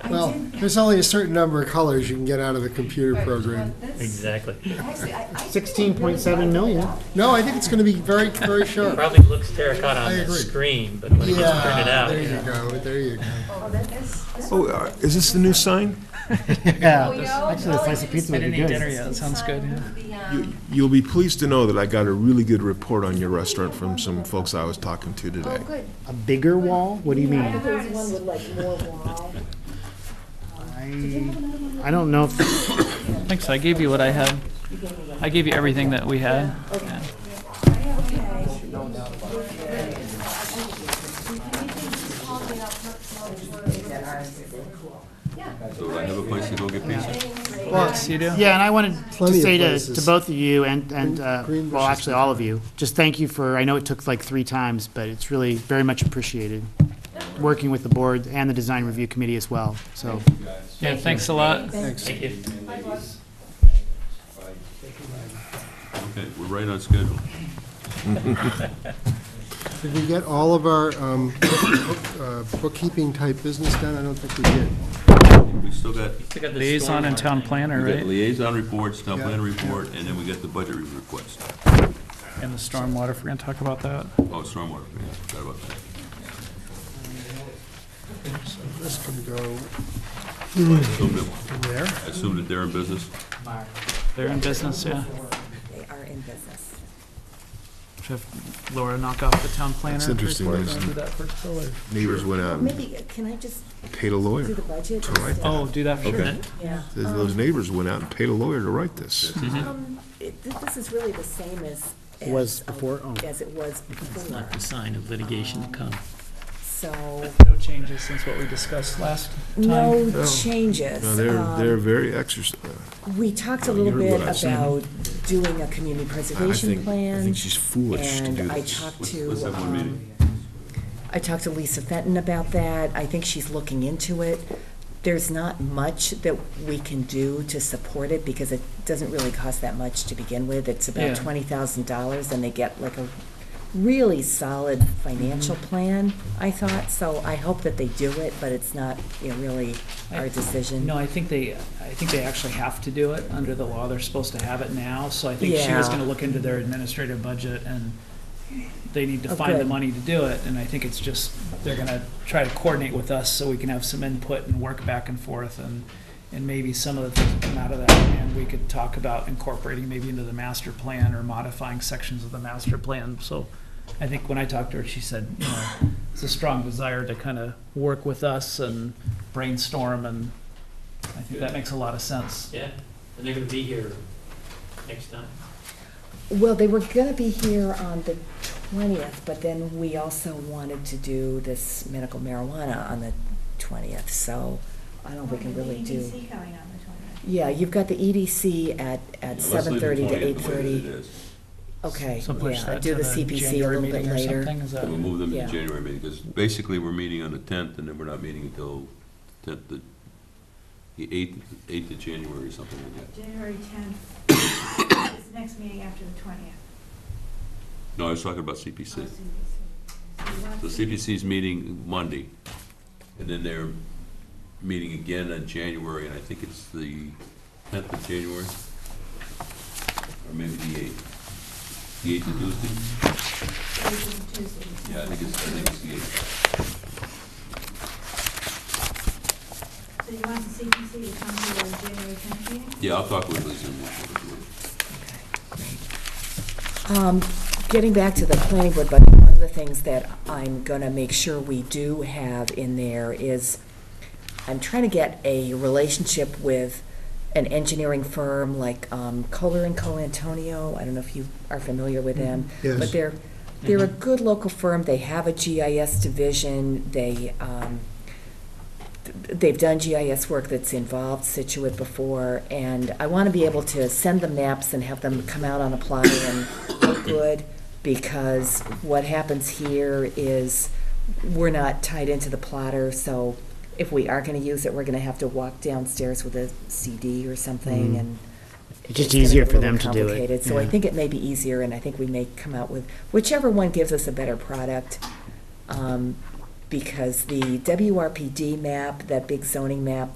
Well, did- there's only a certain number of colors you can get out of the computer Right, program. well, that's- Exactly. Actually, I- I think I really 16.7 like million. that. No, I think it's going to be very, very sharp. Probably looks terracotta I on the agree. screen, but when it gets printed Yeah, out. there yeah. you go, there you go. Oh, that- that's- that's- Oh, uh, is this the new sign? Yeah, Oh, you know, actually, a well, slice it of is- pizza would I be didn't eat good. dinner yet. that sounds good, yeah. The, um, You- You'll be pleased to know that I got a really good report on your restaurant from some folks I was talking to Oh, today. good. A bigger wall? What do you I mean? don't know. One with like more wall. I, I don't know if, Thanks, I gave you what I had. I gave you everything that we had. Yeah. So I have a place to go get pizza. Yes, you do? yeah, and I wanted to Plenty of say to, places. to both of you and, and, uh, Green well, versus actually, all of you, just thank you for, I know it took like three times, but it's really very much appreciated, working with the board and the design review committee as well, so. Yeah, thanks a lot. Thanks. Thank you. Okay, we're right on schedule. Did we get all of our um, book- uh, bookkeeping-type business done? I don't think we did. We still got, Liaison and town planner, we got right? liaison reports, town plan Yeah. report, and then we got the budget request. And the stormwater, if we're gonna talk about that. Oh, stormwater, yeah, forgot about that. So this can go Assumed it- in there. Assumed that they're in business. They're in business, yeah. They are in business. Should have Laura knock off the town planner. That's first, interesting, or isn't do it? that first, or- Neighbors went out and Maybe, uh, can I just paid a do lawyer. the budget? All right. Oh, do that for Okay. sure. Yeah. Those those neighbors went out and paid a lawyer to write this. Um, it- th- This is really the same as. It was as, uh, before, oh. As it was before, Not the sign of litigation to come. so No changes since what we discussed last time. no No. changes. No, they're, Um, they're very exercise, We talked a Oh, little you heard bit what I said. about doing a community I preservation think, I plan. think she's foolish to do And I this. talked Let's- to, let's have one um, meeting. I talked to Lisa Fenton about that. I think she's looking into it. There's not much that we can do to support it because it doesn't really cost that much to begin with. It's Yeah. about twenty thousand dollars and they get like a really solid financial Mm-hmm. plan, I thought. So I hope that they do it, but it's not, you know, really I- our decision. No, I think they, I think they actually have to do it under the law. They're supposed to have it now. So I think she was Yeah. gonna look into their administrative budget and they need to Oh, find the good. money to do it. And I think it's just, they're gonna try to coordinate with us so we can have some input and work back and forth and, and maybe some of the things that come out of that. And we could talk about incorporating maybe into the master plan or modifying sections of the master plan. So I think when I talked to her, she said, you know, it's a strong desire to kind of work with us and brainstorm and I think that makes a lot of sense. Yeah, and they're gonna be here next time. Well, they were gonna be here on the twentieth, but then we also wanted to do this medical marijuana on the twentieth, so I don't know if we can really do. EDC coming on the 20th. Yeah, you've got the EDC at, at Let's leave seven the thirty to 20th eight the way that it thirty. is. Okay, So push yeah, that do to the the CPC a January little bit meeting or later. something, is We'll that? move them to the Yeah. January meeting, because basically, we're meeting on the tenth, and then we're not meeting until tenth, the eighth, eighth of January or something like that. January 10th is the next meeting after the 20th. No, I was talking about CPC. So you want So to- CPC's meeting Monday, and then they're meeting again on January, and I think it's the tenth of January, or maybe the eighth. The eighth of Tuesday? Yeah, I think it's, I think it's the eighth. So you want the CPC to come to the January 10th meeting? Yeah, I'll talk with Lisa. and we'll- we'll do it. Um, getting back to the planning board, but one of the things that I'm gonna make sure we do have in there is, I'm trying to get a relationship with an engineering firm like, um, Kohler and Co. Antonio. I don't know if you are familiar with them. Yes. But they're, they're a good local firm. They have a GIS division. They, um, th- they've done GIS work that's involved Situate before, and I want to be able to send them maps and have them come out on a plot and look good, because what happens here is we're not tied into the plotter, so if we are going to use it, we're going to have to walk downstairs with a CD or something, Mhm. and. It's just gonna easier get a for little them to do it, complicated. So I yeah. think it may be easier, and I think we may come out with, whichever one gives us a better product, um, because the WRPD map, that big zoning map